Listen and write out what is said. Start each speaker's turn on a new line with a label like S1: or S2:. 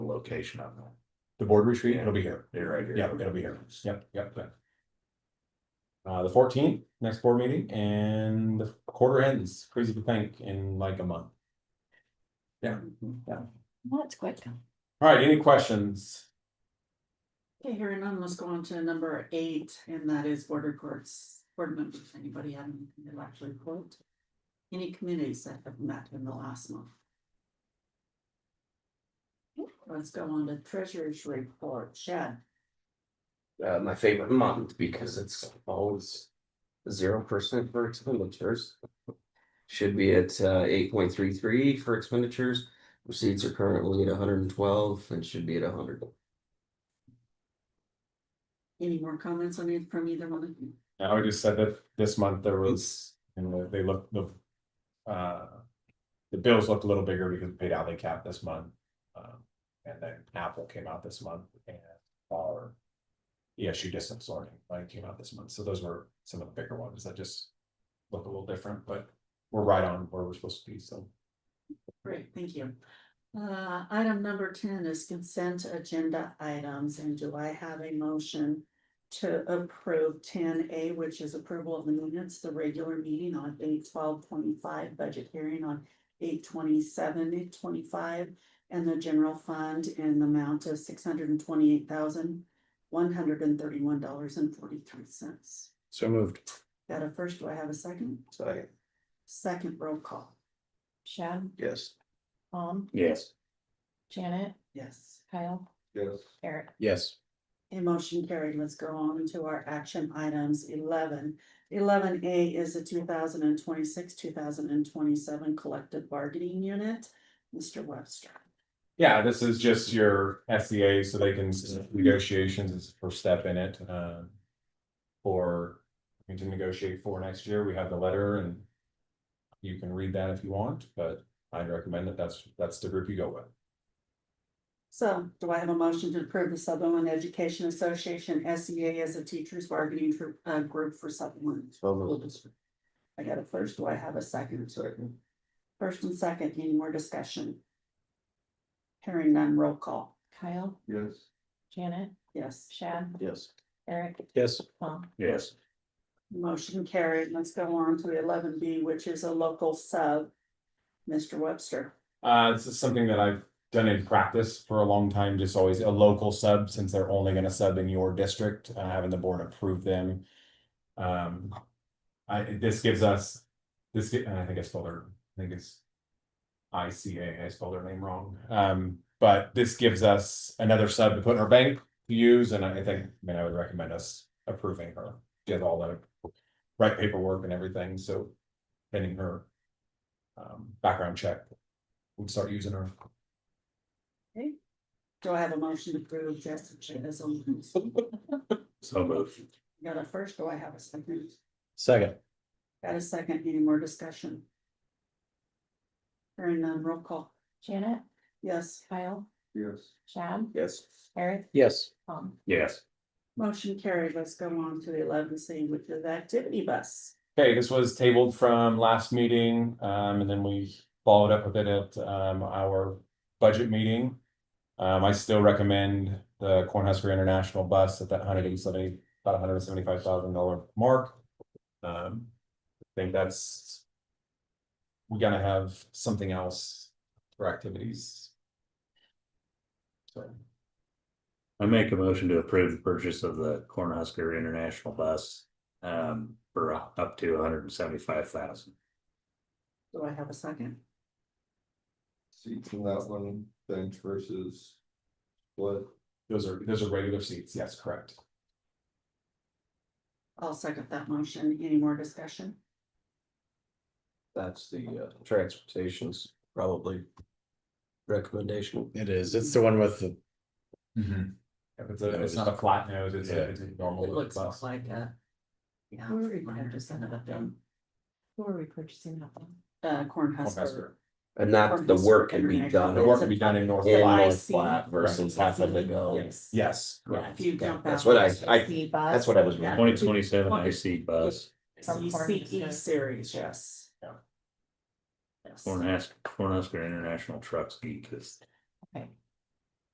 S1: location of them.
S2: The board retreat, it'll be here.
S1: They're right here.
S2: Yeah, it'll be here. Yep, yep. yep. Uh, the fourteenth, next board meeting, and the quarter ends, crazy to think, in like a month. Yeah, yeah.
S3: Well, it's quick.
S2: All right, any questions?
S4: Okay, hearing none, let's go on to number eight, and that is board reports, board members, anybody have anything they'd like to report? Any committees that have met in the last month? Let's go on to treasurer's report, Chad.
S5: uh, my favorite month because it's always zero percent for expenditures. Should be at uh, eight point three three for expenditures. Receipts are currently at hundred and twelve and should be at hundred.
S4: Any more comments on it from either one of you?
S2: I would just said that this month there was, and they look, the. Uh. The bills looked a little bigger because we paid out the cap this month. Um, and then Apple came out this month and our. ESU distance learning, like came out this month, so those were some of the bigger ones that just. Look a little different, but we're right on where we're supposed to be, so.
S4: Great, thank you. Uh, item number ten is consent agenda items, and do I have a motion? To approve ten A, which is approval of the minutes, the regular meeting on eight twelve twenty-five, budget hearing on eight twenty-seven, eight twenty-five. And the general fund in the amount of six hundred and twenty-eight thousand, one hundred and thirty-one dollars and forty-three cents.
S1: So moved.
S4: Got a first, do I have a second?
S5: Second.
S4: Second roll call,
S3: Shad,
S5: Yes.
S3: Tom,
S1: Yes.
S3: Janet,
S4: yes.
S3: Kyle,
S5: Yes.
S3: Eric.
S1: Yes.
S4: A motion carried. Let's go on to our action items eleven. Eleven A is the two thousand and twenty-six, two thousand and twenty-seven collective bargaining unit. Mr. Webster.
S2: Yeah, this is just your SCA, so they can negotiations is the first step in it, um. For, we can negotiate for next year, we have the letter and. You can read that if you want, but I'd recommend that that's, that's the group you go with.
S4: So do I have a motion to approve the Sutherland Education Association SEA as a teachers bargaining tr- uh, group for Sutherland?
S5: So
S4: School
S5: moved.
S4: District? I got a first. Do I have a second?
S5: Second.
S4: First and second, any more discussion? Hearing none, roll call.
S3: Kyle,
S5: Yes.
S3: Janet,
S4: Yes.
S3: Shad,
S5: Yes.
S3: Eric,
S1: Yes.
S3: Tom.
S1: Yes.
S4: Motion carried. Let's go on to eleven B, which is a local sub. Mr. Webster.
S2: Uh, this is something that I've done in practice for a long time, just always a local sub, since they're only gonna sub in your district, uh, having the board approve them. Um, I, this gives us, this, gi- and I think I spelled her, I think it's ICA, I spelled her name wrong, um, but this gives us another sub to put in our bank to use, and I think, I mean, I would recommend us approving her. She has all the right paperwork and everything, so pending her um, background check, we'd start using her.
S4: Do I have a motion to approve Jessica as a?
S1: So moved.
S4: Got a first, do I have a second?
S1: Second.
S4: Got a second, any more discussion? Hearing none, roll call.
S3: Janet,
S4: Yes,
S3: Kyle,
S5: Yes.
S3: Shad,
S5: Yes.
S3: Eric,
S1: Yes.
S3: Tom.
S1: Yes.
S4: motion carried. Let's go on to the eleven C, which is activity bus.
S2: Okay, this was tabled from last meeting, um, and then we followed up with it at, um, our budget meeting. Um, I still recommend the Cornhusker International Bus at that hundred and seventy, about hundred and seventy-five thousand dollar mark. Um, I think that's. We gotta have something else for activities. So,
S1: I make a motion to approve the purchase of the Cornhusker International Bus um for up to hundred and seventy-five thousand.
S4: Do I have a second?
S6: seats in that one bench versus split.
S2: those are, those are regular seats, yes, correct.
S4: I'll second that motion. Any more discussion?
S5: That's the uh, transportation's probably recommendation.
S7: It is. It's the one with the,
S2: If it's a, it's not a flat nose, it's
S7: Yeah.
S2: a, it's a normal.
S4: It looks
S2: bus.
S4: more like a. Yeah.
S3: Where are we
S4: minor
S3: going to send
S4: kind
S3: it
S4: of a
S3: up then?
S4: thing.
S3: Who are we purchasing that from?
S4: Uh, Cornhusker.
S2: Cornhusker.
S5: And not the work can be done.
S2: The work to be done in North
S5: in
S2: Carolina.
S5: North Platte versus having to go.
S4: Yes.
S2: Yes,
S4: Yeah,
S2: correct.
S4: if you
S5: Yeah,
S4: jump out.
S5: that's what I, I,
S3: The bus.
S5: that's what I was.
S4: Yeah.
S1: Twenty twenty-seven IC bus,
S3: From
S4: CCE
S3: Cornhusker.
S4: E series, yes.
S2: Yeah.
S4: Yes.
S1: Cornhusker, Cornhusker International Trucks Geek is
S3: Okay,